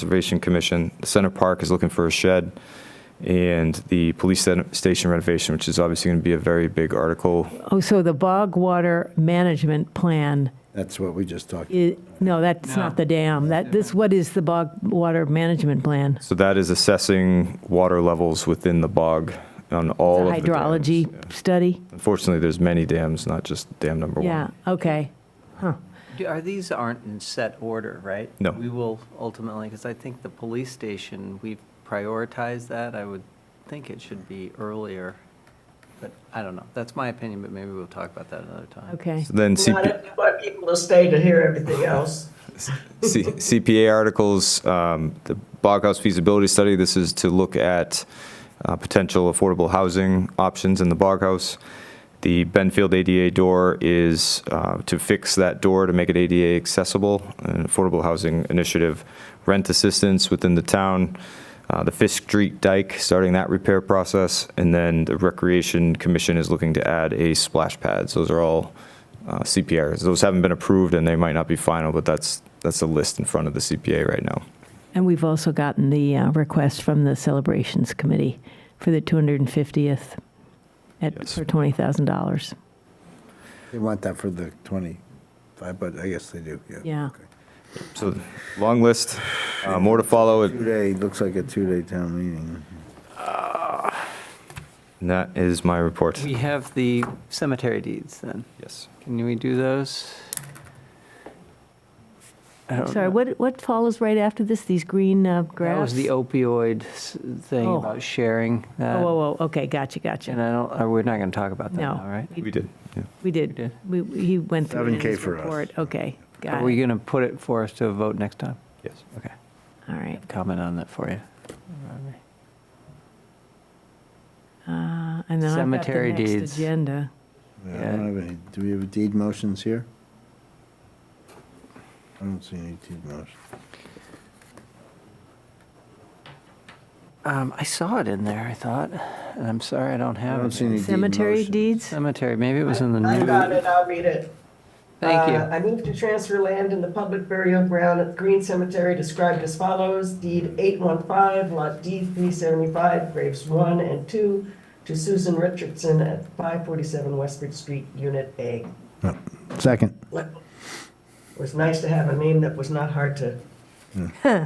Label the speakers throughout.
Speaker 1: Conservation Commission. The Center Park is looking for a shed, and the police sta- station renovation, which is obviously going to be a very big article.
Speaker 2: Oh, so the bog water management plan
Speaker 3: That's what we just talked.
Speaker 2: is, no, that's not the dam. That, this, what is the bog water management plan?
Speaker 1: So that is assessing water levels within the bog on all of the dams.
Speaker 2: Hydrology study?
Speaker 1: Unfortunately, there's many dams, not just dam number one.
Speaker 2: Yeah, okay.
Speaker 4: Do- Are these aren't in set order, right?
Speaker 1: No.
Speaker 4: We will ultimately, because I think the police station, we've prioritized that. I would think it should be earlier, but I don't know. That's my opinion, but maybe we'll talk about that another time.
Speaker 2: Okay.
Speaker 1: So Then
Speaker 5: Why
Speaker 1: CP,
Speaker 5: don't you want people to stay to hear everything else?
Speaker 1: C- CPA articles, um, the Boghouse feasibility study, this is to look at uh, potential affordable housing options in the Boghouse. The Benfield ADA door is uh, to fix that door to make it ADA accessible, an affordable housing initiative, rent assistance within the town, uh, the Fisk Street dike, starting that repair process, and then the Recreation Commission is looking to add a splash pad. So Those are all uh, CPRs. Those haven't been approved and they might not be final, but that's, that's the list in front of the CPA right now.
Speaker 2: And we've also gotten the uh, request from the celebrations committee for the 250th at,
Speaker 1: Yes.
Speaker 2: for $20,000.
Speaker 3: They want that for the 25, but I guess they do, yeah.
Speaker 2: Yeah.
Speaker 3: Okay.
Speaker 1: So, long list, uh, more to follow, and
Speaker 3: Two-day, looks like a two-day town meeting.
Speaker 1: that is my report.
Speaker 4: We have the cemetery deeds then.
Speaker 1: Yes.
Speaker 4: Can we do those? I don't
Speaker 2: Sorry,
Speaker 4: know.
Speaker 2: what, what follows right after this, these green uh,
Speaker 4: That was
Speaker 2: graphs?
Speaker 4: the opioid s- thing
Speaker 2: Oh.
Speaker 4: about sharing that.
Speaker 2: Oh, oh, oh, okay, gotcha,
Speaker 4: And
Speaker 2: gotcha.
Speaker 4: I don't, uh, we're not going to talk about that
Speaker 2: No.
Speaker 4: now, right?
Speaker 1: We did, yeah.
Speaker 2: We did,
Speaker 4: did.
Speaker 2: we, he went through it in
Speaker 3: 7K
Speaker 2: his
Speaker 3: for us.
Speaker 2: report. Okay,
Speaker 4: Are
Speaker 2: got
Speaker 4: we
Speaker 2: it.
Speaker 4: going to put it for us to vote next time?
Speaker 1: Yes.
Speaker 4: Okay.
Speaker 2: All right.
Speaker 4: Comment on that for you.
Speaker 2: Uh, And then I've got the
Speaker 4: Cemetery
Speaker 2: next
Speaker 4: deeds.
Speaker 2: agenda.
Speaker 3: Yeah, I don't have any, do we have deed motions here? I don't see any deed motions.
Speaker 4: Um, I saw it in there, I thought, and I'm sorry I don't
Speaker 3: I
Speaker 4: have
Speaker 3: don't see
Speaker 4: it.
Speaker 3: any deed
Speaker 2: Cemetery
Speaker 3: motions.
Speaker 2: deeds?
Speaker 4: Cemetery, maybe it was in the
Speaker 5: I got
Speaker 4: new.
Speaker 5: it, I'll read it.
Speaker 4: Thank
Speaker 5: Uh,
Speaker 4: you.
Speaker 5: I move to transfer land in the public burial ground at Green Cemetery described as follows. Deed 815, Lot D 375, Graves 1 and 2, to Susan Richardson at 547 Westford Street, Unit A.
Speaker 3: Second.
Speaker 5: It was nice to have a name that was not hard to
Speaker 4: Hmm.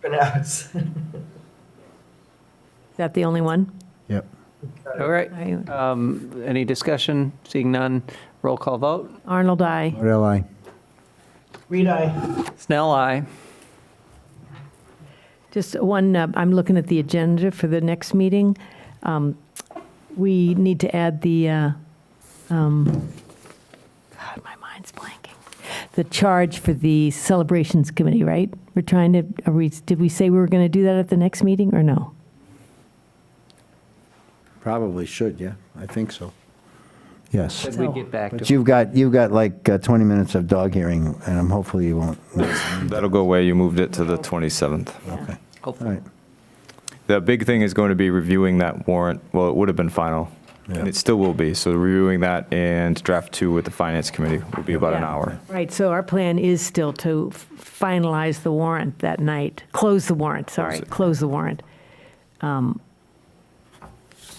Speaker 5: pronounce.
Speaker 2: Is that the only one?
Speaker 3: Yep.
Speaker 4: All right.
Speaker 2: I-
Speaker 4: Um, any discussion? Seeing none, roll call vote.
Speaker 2: Arnold, I.
Speaker 3: What L I?
Speaker 5: Reed, I,
Speaker 4: Snell, aye.
Speaker 2: Just one, uh, I'm looking at the agenda for the next meeting. Um, We need to add the, uh, um, God, my mind's blanking, the charge for the celebrations committee, right? We're trying to, are we, did we say we were going to do that at the next meeting, or no?
Speaker 3: Probably should, yeah, I think so. Yes.
Speaker 4: Did we get back
Speaker 3: But
Speaker 4: to?
Speaker 3: you've got, you've got like uh, 20 minutes of dog hearing, and I'm hopefully you won't.
Speaker 1: That'll go away, you moved it to the 27th.
Speaker 3: Okay, all
Speaker 4: Hopefully.
Speaker 3: right.
Speaker 1: The big thing is going to be reviewing that warrant, well, it would have been final, and
Speaker 3: Yeah.
Speaker 1: it still will be, so reviewing that and draft two with the Finance Committee will be about an
Speaker 2: Yeah.
Speaker 1: hour.
Speaker 2: Right, so our plan is still to f- finalize the warrant that night, close the warrant, sorry,
Speaker 1: Close it.
Speaker 2: close the warrant. Um,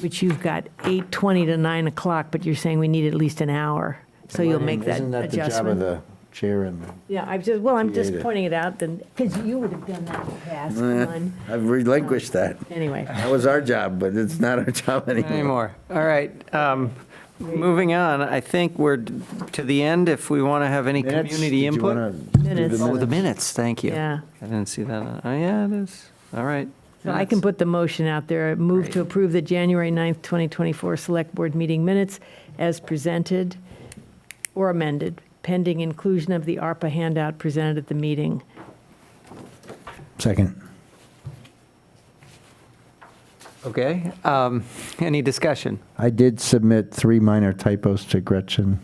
Speaker 2: Which you've got 8:20 to 9 o'clock, but you're saying we need at least an hour, so you'll make that
Speaker 3: Isn't that the job of
Speaker 2: adjustment.
Speaker 3: the chair and the?
Speaker 2: Yeah, I've just, well, I'm just
Speaker 3: Creative.
Speaker 2: pointing it out, then, because you would have done that in the past, come on.
Speaker 3: I've relinquished that.
Speaker 2: Anyway,
Speaker 3: That was our job, but it's not our job anymore.
Speaker 4: Anymore. All right. Um, moving on, I think we're d- to the end. If we want to have any
Speaker 3: Minutes?
Speaker 4: community
Speaker 3: Did you wanna
Speaker 4: input.
Speaker 3: do the
Speaker 2: Minutes.
Speaker 4: Oh, the minutes, thank you.
Speaker 2: Yeah.
Speaker 4: I didn't see that. on- Oh, yeah, it is. All right.
Speaker 2: so I can
Speaker 4: Minutes.
Speaker 2: put the motion out there, move to
Speaker 4: Great.
Speaker 2: approve the January 9th, 2024 Select Board Meeting Minutes as presented or amended, pending inclusion of the ARPA handout presented at the meeting.
Speaker 3: Second.
Speaker 4: Okay. Um, any discussion?
Speaker 3: I did submit three minor typos to Gretchen.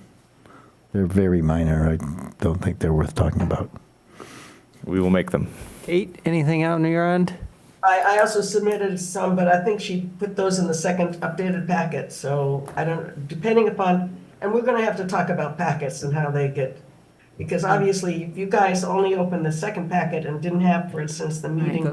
Speaker 3: They're very minor. I don't think they're worth talking about.
Speaker 1: We will make them.
Speaker 4: Eight, anything out on your end?
Speaker 5: I, I also submitted some, but I think she put those in the second updated packet, so I don't, depending upon, and we're gonna have to talk about packets and how they get Because obviously, if you guys only opened the second packet and didn't have, for instance, the meeting